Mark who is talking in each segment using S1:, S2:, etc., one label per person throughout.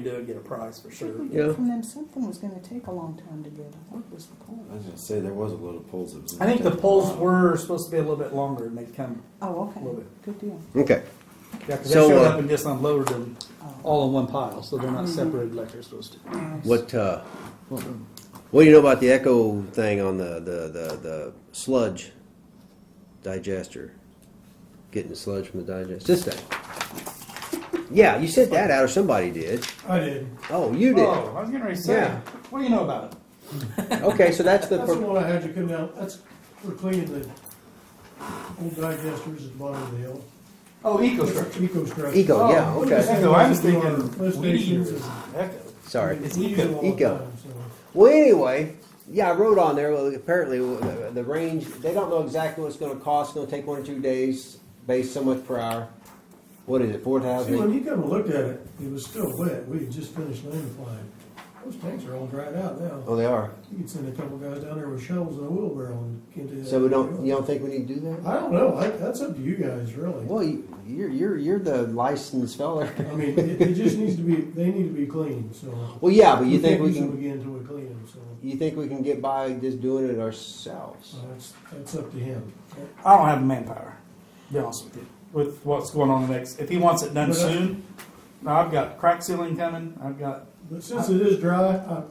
S1: do it, get a price for sure.
S2: We got
S3: Yeah.
S2: From them, something was gonna take a long time to get, I thought was the
S4: I
S2: point.
S4: was gonna say there was a load of polls. That was
S1: I think the
S4: taken
S1: polls
S4: out.
S1: were supposed to be a little bit longer and they've come,
S2: Oh,
S1: A little
S2: okay, good deal.
S3: Okay.
S1: yeah, 'cause
S3: So,
S1: they showed
S3: uh,
S1: up and just unloaded them all in one pile, so they're not separated like they're supposed to.
S2: Nice.
S3: What uh, what do you know about the echo thing on the the the, the sludge digester? Getting the sludge from the digester. This thing. Yeah, you sent that out, or somebody did.
S1: I did.
S3: Oh, you did.
S1: Oh, I was getting ready to say,
S3: Yeah.
S1: what do you know about it?
S3: Okay, so that's the.
S5: That's the one I had you come down, that's for cleaning the old digesters at the bottom of the hill.
S1: Oh, EcoStruxure.
S5: Eco structure.
S3: Eco,
S1: Oh,
S3: yeah, okay.
S1: Echo, I was
S5: Our lift
S1: thinking weedy
S5: stations
S1: or
S5: is-
S1: Echo.
S3: Sorry.
S1: It's
S5: We use them all the
S3: Eco.
S5: time, so.
S3: Well, anyway, yeah, I wrote on there. Well, apparently, uh, the range they don't know exactly what it's going to cost. It's going to take one or two days, based so much per hour. What is it? Four
S5: See, when
S3: thousand.
S5: you come and looked at it, it was still wet, we had just finished land applying. Those tanks are all dried out now.
S3: Oh, they are.
S5: You could send a couple guys down there with shovels and a wheelbarrow and get it.
S3: So we don't. You don't think we need to do that?
S5: I don't know, I, that's up to you guys, really.
S3: Well, you- you're you're you're the licensed fella.
S5: I mean, it, it just needs to be, they need to be cleaned, so.
S3: Well, yeah, but you think
S5: can't
S3: we
S5: use them
S3: can?
S5: Again until we clean them, so,
S3: You think we can get by just doing it ourselves?
S5: so that's, that's up to him.
S1: I don't have the manpower, to be honest with you, with what's going on the next. If he wants it done
S5: But I-
S1: soon, now I've got crack sealing coming, I've got,
S5: But since it is dry, I.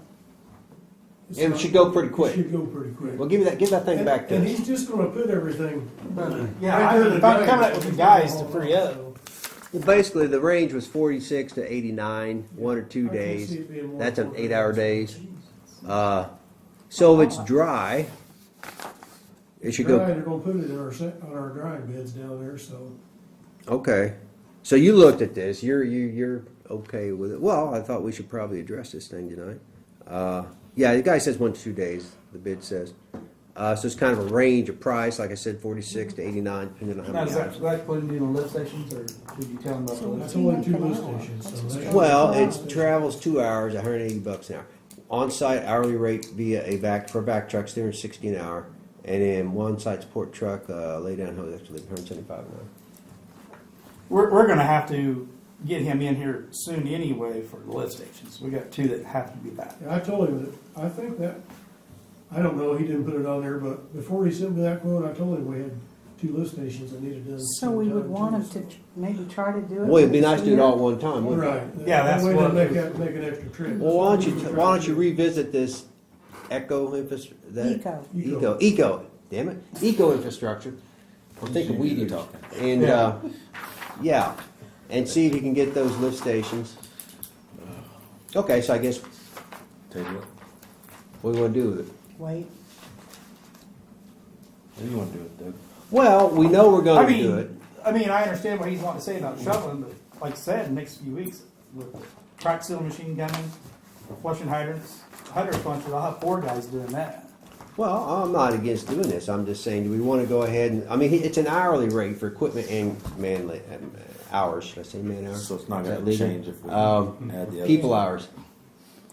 S5: it's
S3: It
S5: not-
S3: should go pretty
S5: It
S3: quick.
S5: should go pretty quick.
S3: Well, give me that. Give that thing
S5: And-
S3: back to
S5: And
S3: us.
S5: he's just gonna put everything.
S1: yeah,
S5: right
S1: I-
S5: there in the
S1: if I'm
S5: drain.
S1: coming up with the guys to free up.
S3: Well, basically, the range was 46 to 89, one or two
S5: I can
S3: days.
S5: see it being more
S3: That's an
S5: important.
S3: eight-hour days. Uh, so if it's dry, it should
S5: Dry,
S3: go.
S5: they're gonna put it in our, se- on our drying beds down there, so.
S3: Okay. So you looked at this. You're you you're okay with it. Well, I thought we should probably address this thing tonight. Uh, yeah, the guy says one to two days. The bid says. Uh, so it's kind of a range of price, like I said, 46 to 89, depending on how
S1: now
S3: many
S1: is that,
S3: hours.
S1: is that putting you on lift stations or did you tell him about the lift?
S5: That's only two lift stations, so. that should-
S3: Well, it travels two hours, 180 bucks an hour. On-site hourly rate via a back for back trucks, 360 an hour, and then one site support truck uh, lay down hose actually 175 an hour.
S1: We're, we're gonna have to get him in here soon anyway for the lift stations. We got two that have to be back.
S5: Yeah, I told him that, I think that, I don't know, he didn't put it on there, but before he sent me that quote, I told him we had two lift stations that needed done.
S2: So we would
S5: sometime,
S2: want
S5: too,
S2: them
S5: so.
S2: to tr- maybe try to do it.
S3: Well, it'd be nice to do it all
S2: this
S3: at one time, wouldn't it?
S5: Right.
S1: Yeah, that's
S5: That way
S1: what-
S5: they make, that- make an extra trip.
S3: Well, why don't you why don't you revisit this eco infrastructure?
S2: year. Eco.
S3: Eco. Eco. Damn it. Eco infrastructure. I'm thinking weedy talking. And uh, yeah, and see if you can get those lift stations. Okay, so I guess
S4: Table it.
S3: what do we want to do with it?
S2: Wait,
S4: What do you want to do with Doug?
S3: Well, we know we're
S1: I
S3: going to do it.
S1: mean, I mean, I understand what he's wanting to say about shoveling, but like I said, next few weeks with the crack seal machine coming, flushing hydrants, hydrant puncher, I'll have four guys doing that.
S3: Well, I'm not against doing this. I'm just saying, do we want to go ahead and? I mean, it's an hourly rate for equipment and man li- um, hours. Should I say man hours?
S4: So it's not
S3: Is that
S4: going to
S3: legal?
S4: change if we
S3: Um,
S4: add the other.
S3: people hours,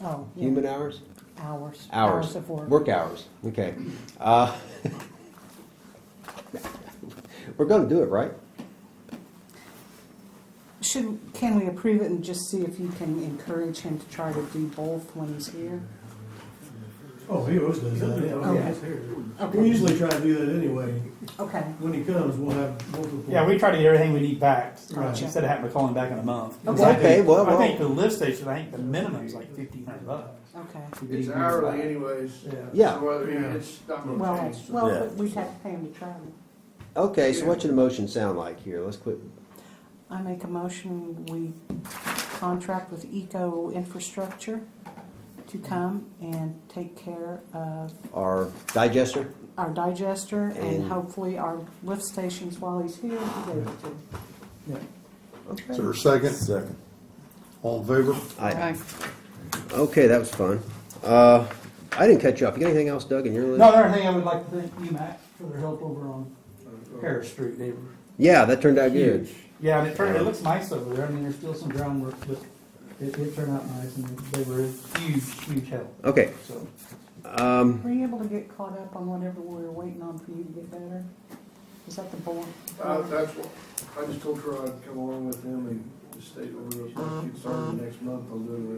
S2: oh, yeah.
S3: human hours,
S2: hours.
S3: hours,
S2: of work.
S3: hours. Okay, uh, we're going to do it, right?
S2: Should, can we approve it and just see if you can encourage him to try to do both when he's here?
S5: Oh, he always does that, Oh, yeah.
S2: Okay.
S5: We
S2: Okay,
S5: usually try to do that anyway.
S2: okay,
S5: When he comes, we'll have multiple.
S1: Yeah, we try to get everything we need back, uh,
S2: Gotcha.
S1: instead of having to call him back in a month. 'Cause
S2: Okay.
S1: I think-
S3: Okay, well,
S1: I think
S3: well.
S1: the lift station, I think the minimum is like fifteen hundred bucks.
S2: okay.
S1: to get
S6: It's
S1: him
S6: hourly
S1: back.
S6: anyways.
S1: Yeah.
S3: Yeah.
S6: So whether
S5: Yeah.
S6: it's not gonna
S2: Well,
S6: change.
S2: well,
S4: Yeah.
S2: but we'd have to pay him to travel.
S3: Okay, so what should the motion sound like here? Let's quit.
S2: I make a motion, we contract with Eco Infrastructure to come and take care of
S3: Our digester.
S2: our digester and
S3: And-
S2: hopefully our lift stations while he's here. he goes to.
S3: Okay.
S7: Is there a second?
S4: Second.
S7: All in favor?
S3: I- Okay, that was fun. Uh, I didn't catch you up. You got anything else, Doug, in your list?
S1: Another thing I would like to thank you, Matt, for their help over on Harris Street. They were
S3: Yeah, that turned out good.
S1: Yeah, and it turned, it looks nice over there. I mean, there's still some groundwork, but it, it turned out nice and they were a huge, huge help,
S3: Okay.
S1: so.
S3: Um,
S2: Were you able to get caught up on whatever we were waiting on for you to get better? Is that the board?
S5: Uh,
S6: Uh, that's what, I just told her I'd come along with him and
S5: the state order, us to start the next month on doing the